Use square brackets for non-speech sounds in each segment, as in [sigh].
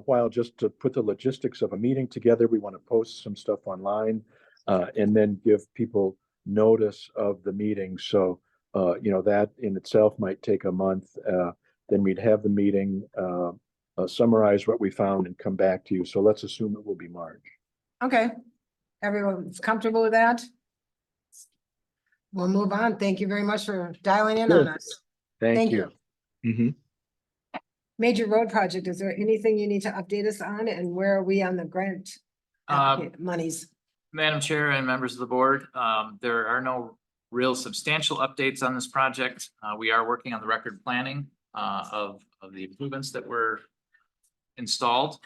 worthwhile just to put the logistics of a meeting together. We want to post some stuff online. Uh, and then give people notice of the meeting. So, uh, you know, that in itself might take a month. Uh, then we'd have the meeting, uh, uh, summarize what we found and come back to you. So let's assume it will be March. Okay, everyone's comfortable with that? We'll move on. Thank you very much for dialing in on Sure. us. Thank you. Mhm. Major road project, is there anything you need to update us on and where are we on the grant? Uh, applica- Monies, Madam Chair and members of the board, um, there are no real substantial updates on this project. Uh, we are working on the record planning, uh, of, of the improvements that were installed,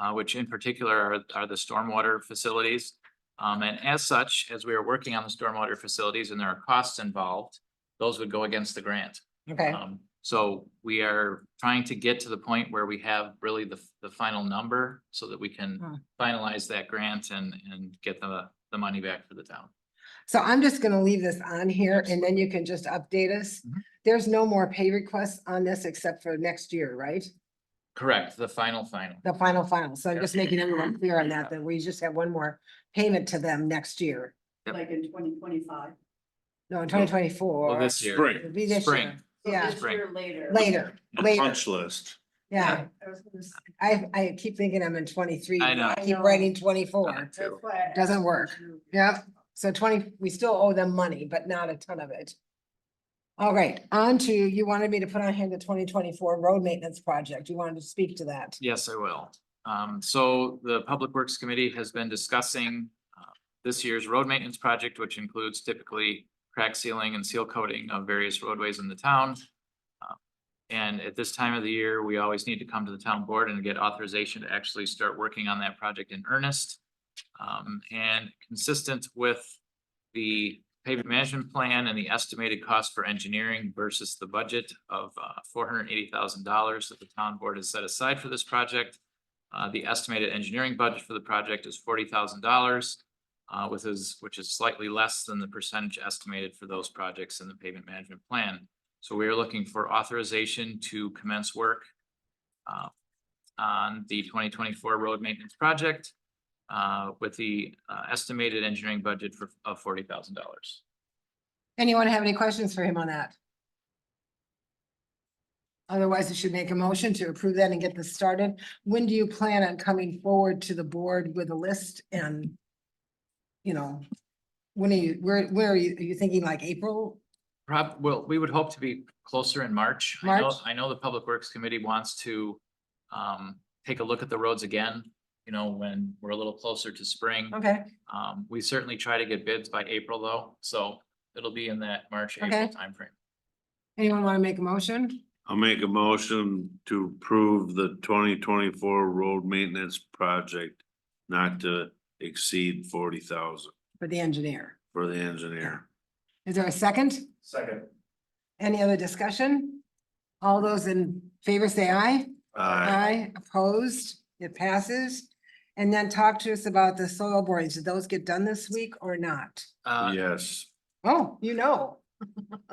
uh, which in particular are, are the stormwater facilities. Um, and as such, as we are working on the stormwater facilities and there are costs involved, those would go against the grant. okay, Um, so we are trying to get to the point where we have really the, the final number so that we Hmm. can finalize that grant and, and get the, the money back for the town. so I'm just gonna leave this on here and then you can just update us. Mhm. There's no more pay requests on this except for next year, right? Correct, the final, final. The final final, so I'm Yeah. just making everyone clear on that, Yeah. that we just have one more payment to them next year, Yep. like in twenty twenty-five. no, in twenty twenty-four. Well, this year, Spring, Be this Spring. year, yeah, Spring. Later. later, the later, punch list. yeah. I was gonna say, I, I keep thinking I'm in twenty-three. I know. I keep I know. writing twenty-four. Too. that's why I Doesn't asked work. you. Yep, so twenty, we still owe them money, but not a ton of it. All right, on to, you wanted me to put on hand the twenty twenty-four road maintenance project. You wanted to speak to that. Yes, I will. Um, so the Public Works Committee has been discussing uh, this year's road maintenance project, which includes typically crack sealing and seal coating of various roadways in the town. Uh, And at this time of the year, we always need to come to the town board and get authorization to actually start working on that project in earnest. Um, and consistent with the pavement management plan and the estimated cost for engineering versus the budget of uh, four hundred and eighty thousand dollars that the town board has set aside for this project. Uh, the estimated engineering budget for the project is forty thousand dollars, uh, with is, which is slightly less than the percentage estimated for those projects in the pavement management plan. So we are looking for authorization to commence work uh, on the twenty twenty-four road maintenance project uh, with the uh, estimated engineering budget for, of forty thousand dollars. Anyone have any questions for him on that? Otherwise, I should make a motion to approve that and get this started. When do you plan on coming forward to the board with a list and, you know, when are you, where, where are you, are you thinking like April? Prob, well, we would hope to be closer in March. I know, March? I know the Public Works Committee wants to um, take a look at the roads again, you know, when we're a little closer to spring. Okay. Um, we certainly try to get bids by April though, so it'll be in that March, April Okay. timeframe. Anyone want to make a motion? I'll make a motion to approve the twenty twenty-four road maintenance project not to exceed forty thousand For the engineer. for the engineer. Is there a second? Second. Any other discussion? All those in favor say aye. Aye. Aye, opposed, it passes. And then talk to us about the soil borings. Did those get done this week or not? Uh, yes, Oh, you know. [laughs]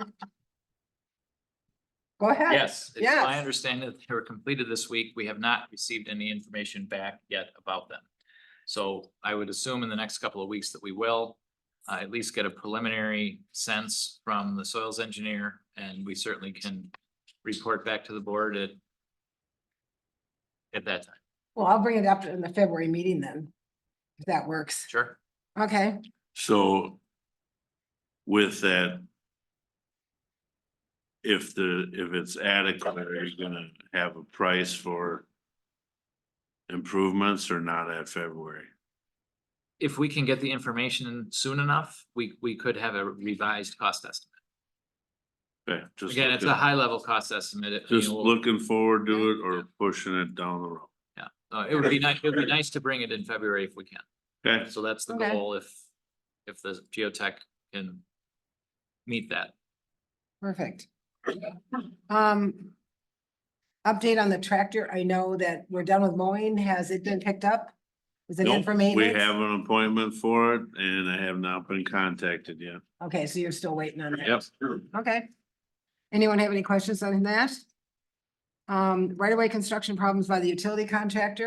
Go ahead. Yes, it's my Yes. understanding that they were completed this week. We have not received any information back yet about them. So I would assume in the next couple of weeks that we will uh, at least get a preliminary sense from the soils engineer, and we certainly can report back to the board at at that time. Well, I'll bring it up in the February meeting then, if that works. Sure. Okay, so with that, if the, if it's adequate, are you gonna have a price for improvements or not at February? If we can get the information soon enough, we, we could have a revised cost estimate. Okay, just Again, it's a looking- high level cost estimate. It- you Just know, looking forward to it or pushing it down the road. uh, It would be nice, it would be nice to bring it in February if we can. Okay, So that's the Okay. goal if, if the geotech can meet that. perfect. Um. Update on the tractor. I know that we're done with mowing. Has it been picked up? Is it in Nope, for we maintenance? have an appointment for it and I have not been contacted yet. Okay, so you're still waiting on that? Yep. Okay. Anyone have any questions on that? Um, right-of-way construction problems by the utility contractor?